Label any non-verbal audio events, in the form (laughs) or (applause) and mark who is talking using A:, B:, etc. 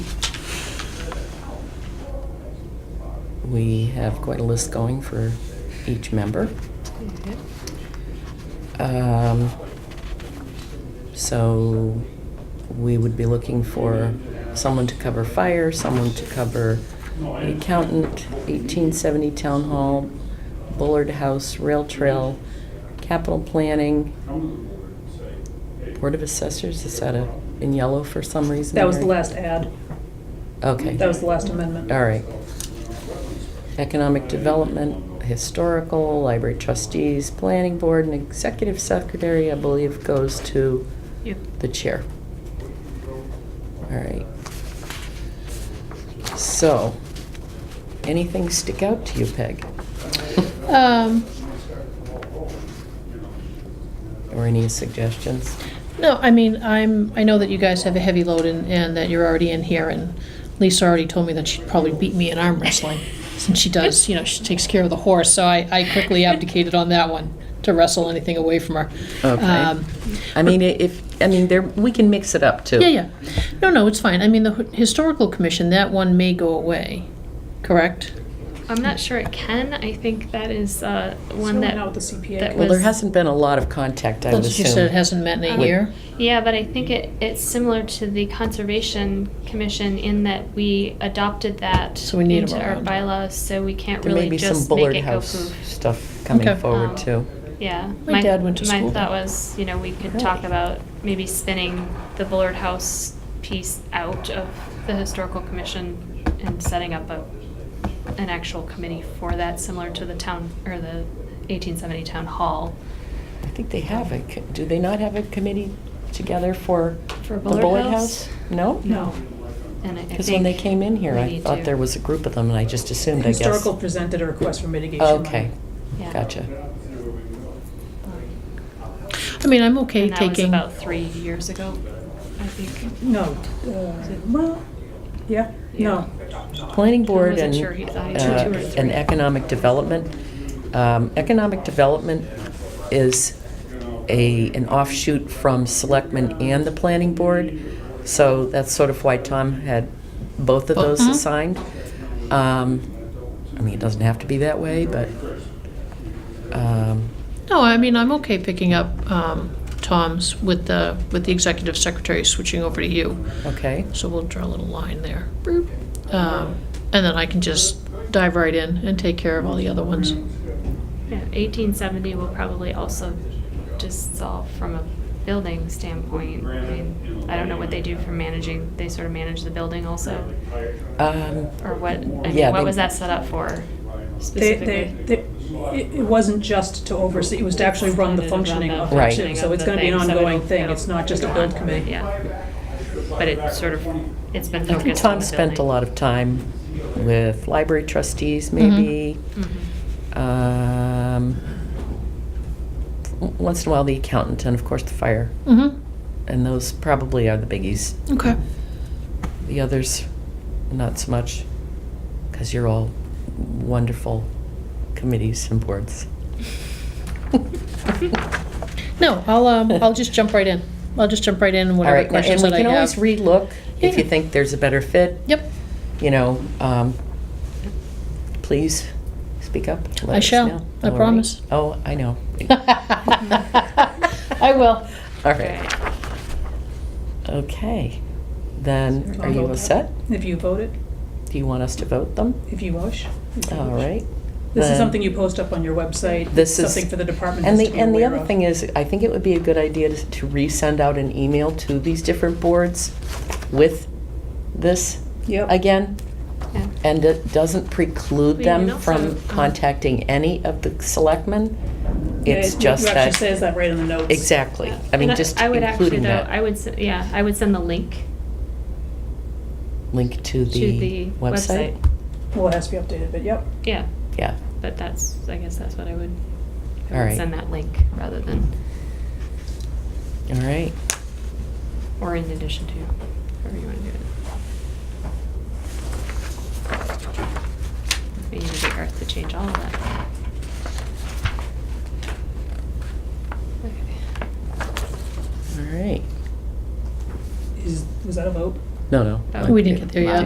A: We have quite a list going for each member.
B: Mm-hmm.
A: Um, So we would be looking for someone to cover fire, someone to cover the accountant, 1870 Town Hall, Bullard House, Rail Trail, Capital Planning, Board of Assessors, is that a- in yellow for some reason?
C: That was the
A: or-
C: last ad.
A: Okay.
C: That was the last amendment.
A: All right. Economic Development, Historical, Library Trustees, Planning Board, and Executive Secretary, I believe, goes to
C: Yep.
A: the chair. All right. So, anything stick out to you,
D: (laughs)
A: Peg?
D: Um,
A: Or any suggestions?
D: no, I mean, I'm, I know that you guys have a heavy load and, and that you're already in here and Lisa already told me that she'd probably beat me in arm wrestling. Since she does, you know, she takes care of the horse, so I, I
B: (laughs)
D: quickly abdicated on that one to wrestle anything away from her.
A: Okay.
D: Um,
A: I mean, if, I mean, there, we can mix it up, too.
D: Yeah, yeah. No, no, it's fine. I mean, the H- historical commission, that one may go away, correct?
B: I'm not sure it can. I think that is uh,
C: So
B: one that.
C: now with the CPA.
B: that
A: Well, there
B: was-
A: hasn't been a lot of contact, I would
D: That's-
A: assume.
D: You said it hasn't met in
B: Um,
D: a year?
B: Yeah, but I think it, it's similar to the Conservation Commission in that we adopted that
D: So we need 'em
B: into our
D: around.
B: bylaws, so we can't
A: There may
B: really
A: be some
B: just make
A: Bullard
B: it go
A: House
B: poof.
A: stuff coming
D: Okay.
A: forward,
B: Um,
A: too.
B: Yeah.
D: My dad went to school
B: My
D: there.
B: thought was, you know, we could
A: Really?
B: talk about maybe spinning the Bullard House piece out of the Historical Commission and setting up a, an actual committee for that, similar to the town, or the 1870 Town Hall.
A: I think they have a, co- do they not have a committee together for
B: For
A: the
B: Bullard
A: Bullard
B: House?
A: House? No?
C: No.
B: And I I think.
A: Because when they came in here,
B: we
A: I
B: need
A: thought
B: to-
A: there was a group of them, and I just assumed, I guess.
C: Historical presented a request for mitigation.
A: Okay,
B: Yeah.
A: gotcha.
D: I mean, I'm okay
B: And that was
D: taking,
B: about three years ago, I think.
C: No, uh, well, yeah, no.
A: Planning Board and,
B: wasn't sure he thought he
A: uh,
B: had two or three.
A: and Economic Development. Um, Economic Development is a, an offshoot from Selectmen and the Planning Board, so that's sort of why Tom had both of those
D: Mhm.
B: mm-hmm.
A: assigned. Um, I mean, it doesn't have to be that way, but, um,
D: no, I mean, I'm okay picking up, um, Tom's with the, with the executive secretary switching over to you.
A: okay.
D: So we'll draw a little line there. Boop. Um, and then I can just dive right in and take care of all the other ones.
B: Yeah, 1870 will probably also just solve from a building standpoint. I mean, I don't know what they do for managing, they sort of manage the building also,
A: Um,
B: or what, I
A: Yeah,
B: mean, what
A: they-
B: was that set up for
C: They, they,
B: specifically?
C: they- it it wasn't just to oversee, it was to actually run the
B: Run the
C: functioning of it
A: Right.
C: too. So
B: functioning
C: it's
B: of
C: gonna be an
B: the thing, so
C: ongoing
B: it'll-
C: thing.
B: it'll
C: It's not just a
B: go
C: build
B: on.
C: committee.
B: Yeah. But it sort of, it's been
A: I think
B: focused on
A: Tom
B: the
A: spent a
B: building.
A: lot of time with library trustees, maybe.
B: Mhm.
A: Um, w- once in a while, the accountant, and of course, the fire.
D: Mm-hmm,
A: And those probably are the biggies.
D: okay.
A: The others, not so much, because you're all wonderful committees and
D: (laughs)
A: boards.
D: No, I'll, um, I'll just jump right in. I'll just jump right in and
A: All
D: whatever
A: right, now-
D: questions that I
A: And we can always
D: have.
A: relook if you
D: Yeah.
A: think there's a better fit.
D: Yep,
A: You know, um, please speak up. let
D: I
A: us
D: shall.
A: know.
D: I
A: All right.
D: promise.
A: Oh, I know.
D: (laughs) I will.
A: All
B: Okay.
A: right, okay. Then, are you all set?
C: If you voted,
A: Do you want us to vote them?
C: if you wish. if you
A: All
C: wish.
A: right.
C: This
A: Then-
C: is something you post up on your website.
A: This is-
C: Something for the department
A: And
C: heads
A: the,
C: to be
A: and the
C: aware
A: other
C: of.
A: thing is, I think it would be a good idea to, to resend out an email to these different boards with this
C: Yep.
A: again.
B: Yeah.
A: And it doesn't preclude
B: We can
A: them
B: also,
A: from
B: um,
A: contacting any of the selectmen.
C: Yeah,
A: It's
C: it-
A: just
C: It actually
A: that,
C: says that right in the notes.
A: exactly. I mean,
B: And
A: just
B: I would actually
A: including
B: though, I
A: that
B: would, s- yeah, I would send the link
A: link to
B: to the
A: the website.
B: website.
C: Well, it has to be updated, but yep.
B: Yeah,
A: Yeah,
B: but that's, I guess that's what I would,
A: All
B: I
A: right.
B: would send that link rather than,
A: all right.
B: or in addition to, however you want to do it. We need to get Garth to change all of that. Okay.
A: All right.
C: Is, was that a vote?
A: No, no.
B: Oh.
A: I-
D: We didn't get there yet.